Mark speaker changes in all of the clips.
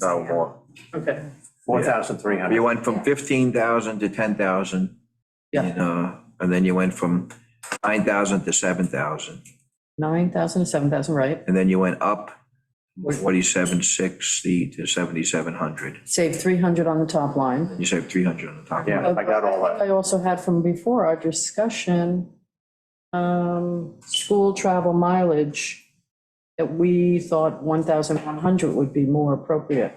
Speaker 1: No more.
Speaker 2: Okay,
Speaker 3: Four thousand three
Speaker 1: uh, You
Speaker 3: hundred.
Speaker 1: went from fifteen thousand to ten thousand.
Speaker 2: Yeah.
Speaker 1: And, uh, and then you went from nine thousand to seven thousand,
Speaker 2: nine thousand to seven thousand, right?
Speaker 1: and then you went up
Speaker 2: Wait.
Speaker 1: forty-seven sixty to seventy-seven hundred.
Speaker 2: Save three hundred on the top line.
Speaker 1: You saved three hundred on the top.
Speaker 3: Yeah, I got all
Speaker 2: Uh,
Speaker 3: that.
Speaker 2: I also had from before our discussion, um, school travel mileage, that we thought one thousand one hundred would be more appropriate.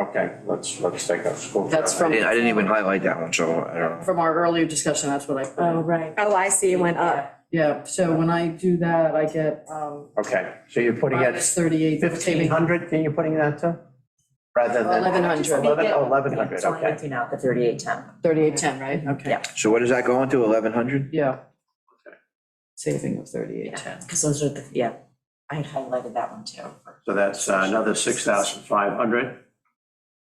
Speaker 3: Okay, let's, let's take a school.
Speaker 2: That's
Speaker 1: I
Speaker 2: from,
Speaker 1: didn't, I didn't even highlight that one, so I don't know.
Speaker 2: from our earlier discussion, that's what I put
Speaker 3: Uh,
Speaker 2: in.
Speaker 4: right.
Speaker 5: Oh, I see, it went up.
Speaker 2: Yeah, so when I do that, I get, um,
Speaker 3: Okay, so you're putting it
Speaker 2: minus thirty-eight,
Speaker 3: fifteen
Speaker 2: saving
Speaker 3: hundred, then you're putting that to? Rather than.
Speaker 2: eleven hundred,
Speaker 3: Eleven, oh, eleven hundred,
Speaker 4: It's only
Speaker 3: okay.
Speaker 4: looking out the thirty-eight ten.
Speaker 2: thirty-eight, ten, right? Okay,
Speaker 4: Yeah.
Speaker 1: So what does that go into, eleven hundred?
Speaker 2: yeah.
Speaker 3: Okay.
Speaker 2: Saving of thirty-eight, ten.
Speaker 4: Because those are the, yeah, I had highlighted that one too.
Speaker 3: So that's uh, another six thousand five hundred.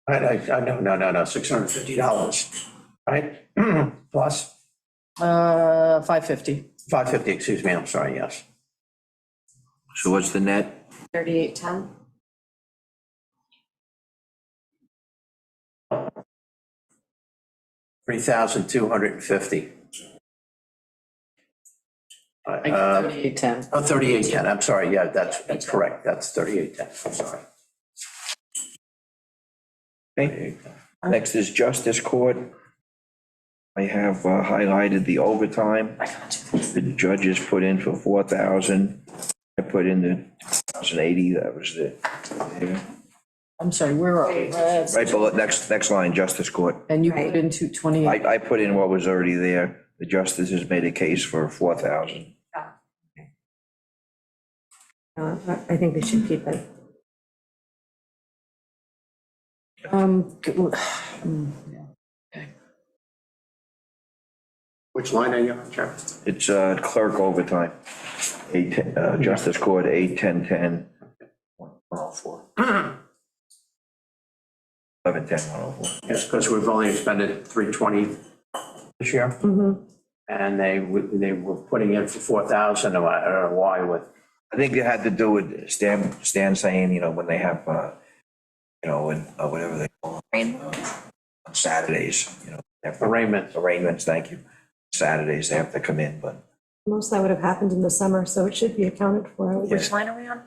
Speaker 3: I, I, I, no, no, no, no, six hundred fifty dollars, right? Plus
Speaker 2: Uh, five fifty.
Speaker 3: five fifty, excuse me, I'm sorry, yes.
Speaker 1: So what's the net?
Speaker 4: Thirty-eight ten?
Speaker 3: Three thousand two hundred and fifty.
Speaker 2: I get thirty-eight, ten.
Speaker 3: Oh, 3810, I'm sorry, yeah, that's, that's correct, that's 3810, I'm sorry.
Speaker 1: Okay. Next is justice court. I have uh, highlighted the overtime.
Speaker 4: I can't do this.
Speaker 1: The judges put in for four thousand, I put in the thousand eighty, that was the,
Speaker 2: I'm sorry, where are we? That's-
Speaker 1: right below, next, next line, justice court.
Speaker 2: And you put in two
Speaker 1: I,
Speaker 2: twenty-eight,
Speaker 1: I put in what was already there, the justices made a case for four thousand.
Speaker 5: No, I I think we should keep it.
Speaker 2: um, g- mm,
Speaker 3: Which line are you on, Chair?
Speaker 1: It's uh, clerk overtime, eight, uh, justice court, eight, ten, ten. One oh four. Eleven, ten, one oh four.
Speaker 3: Yes, because we've only expended 320 this year. And they, w- they were putting in for 4,000, and I don't know why with,
Speaker 1: I think it had to do with Stan, Stan saying, you know, when they have, uh, you know, when, uh, whatever they call it, uh, on Saturdays, you know, they have
Speaker 3: arraignments.
Speaker 1: arraignments, thank you. Saturdays, they have to come in, but
Speaker 5: Most of that would have happened in the summer, so it should be accounted for. I would
Speaker 1: Yes.
Speaker 4: Which line are we on?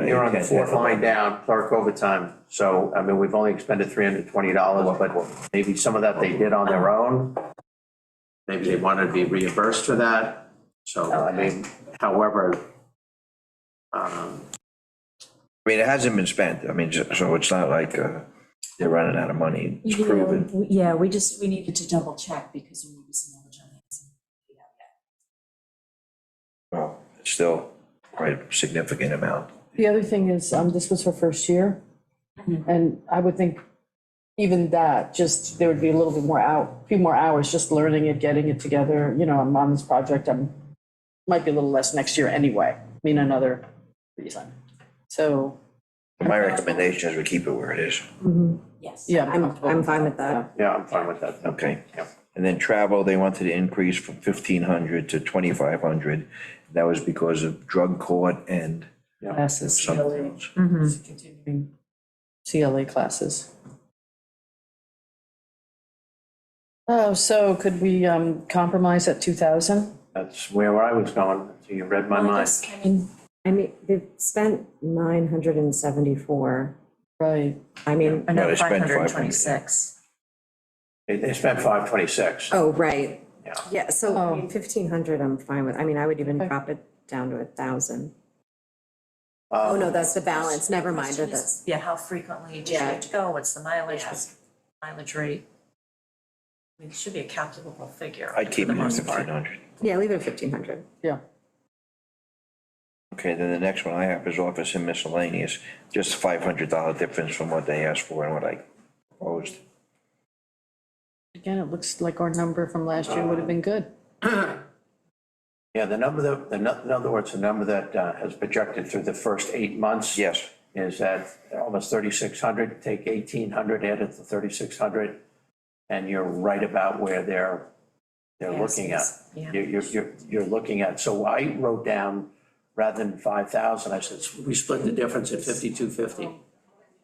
Speaker 1: uh,
Speaker 3: You're on the fourth line down, clerk overtime. So, I mean, we've only expended $320, but maybe some of that they did on their own. Maybe they wanted to be reimbursed for that. So, I mean, however, um,
Speaker 1: I mean, it hasn't been spent, I mean, so- so it's not like, uh, they're running out of money, it's proven.
Speaker 4: Yeah, we just, we needed to double check because there may be some knowledge on that.
Speaker 1: Well, it's still quite a significant amount.
Speaker 2: the other thing is, um, this was her first year,
Speaker 5: Mm-hmm.
Speaker 2: and I would think even that, just, there would be a little bit more out, few more hours, just learning it, getting it together, you know, I'm on this project, I'm, might be a little less next year anyway, I mean, another reason. So,
Speaker 1: My recommendation is we keep it where it is,
Speaker 4: Yes.
Speaker 2: yeah.
Speaker 5: I'm, I'm fine with that.
Speaker 3: yeah, I'm fine with that.
Speaker 1: okay?
Speaker 3: Yep.
Speaker 1: And then travel, they wanted to increase from fifteen hundred to twenty-five hundred. That was because of drug court and
Speaker 2: Classes,
Speaker 1: something else.
Speaker 2: continuing CLA classes. Oh, so could we um, compromise at 2,000?
Speaker 3: That's where I was going, until you read my
Speaker 4: Well, Oh, I
Speaker 3: mind.
Speaker 4: guess, I mean,
Speaker 5: I mean, they've spent nine hundred and seventy-four.
Speaker 2: Right.
Speaker 5: I mean,
Speaker 4: I
Speaker 1: No, they
Speaker 4: know
Speaker 1: spent
Speaker 4: five hundred
Speaker 1: 500.
Speaker 4: and twenty-six.
Speaker 3: They, they spent five twenty-six.
Speaker 5: oh, right.
Speaker 3: Yeah.
Speaker 5: Yeah,
Speaker 2: Oh.
Speaker 5: so fifteen hundred, I'm fine with. I mean, I would even
Speaker 2: Okay.
Speaker 5: drop it down to a thousand.
Speaker 3: Uh,
Speaker 5: Oh, no, that's the balance. Never mind,
Speaker 4: Question
Speaker 5: that's.
Speaker 4: is, Yeah, how frequently do you
Speaker 5: Yeah.
Speaker 4: have to go? What's the mileage, what's the mileage rate? I mean, It should be a calculable figure.
Speaker 1: I'd keep
Speaker 4: for
Speaker 1: it
Speaker 4: the
Speaker 1: at
Speaker 4: most part.
Speaker 1: fifteen hundred.
Speaker 5: Yeah, leave it at fifteen hundred.
Speaker 2: Yeah.
Speaker 1: Okay, then the next one I have is office and miscellaneous, just five hundred dollar difference from what they asked for and what I proposed.
Speaker 2: Again, it looks like our number from last year would have been good.
Speaker 3: Yeah, the number that, the, nu- in other words, the number that uh, has projected through the first eight months.
Speaker 1: Yes,
Speaker 3: Is at almost thirty-six hundred, take eighteen hundred, add it to thirty-six hundred, and you're right about where they're, they're
Speaker 4: Yes,
Speaker 3: looking at.
Speaker 4: yes, yeah.
Speaker 3: You're, you're, you're, you're looking at, so I wrote down, rather than five thousand, I said, we split the difference at fifty-two fifty.